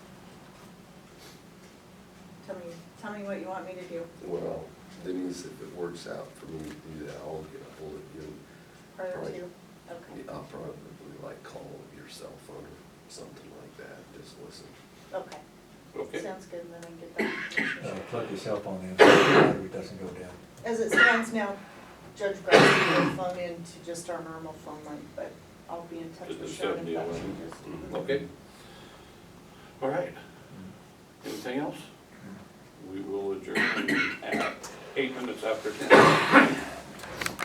tell me, tell me what you want me to do. Well, Denise, if it works out for me to do that, I'll get a hold of you. Prior Right. to, okay, I'll probably like call your cell phone or something like that, just listen. okay, Okay, sounds good, then I can get Uh, that. Plug your cell phone in, so it doesn't go down. As it stands now, Judge Grassley will phone in to just our normal phone line, but I'll be in touch Just with the Sean if 70, that wasn't changes. okay. All right, anything else? We will adjourn at eight minutes after ten.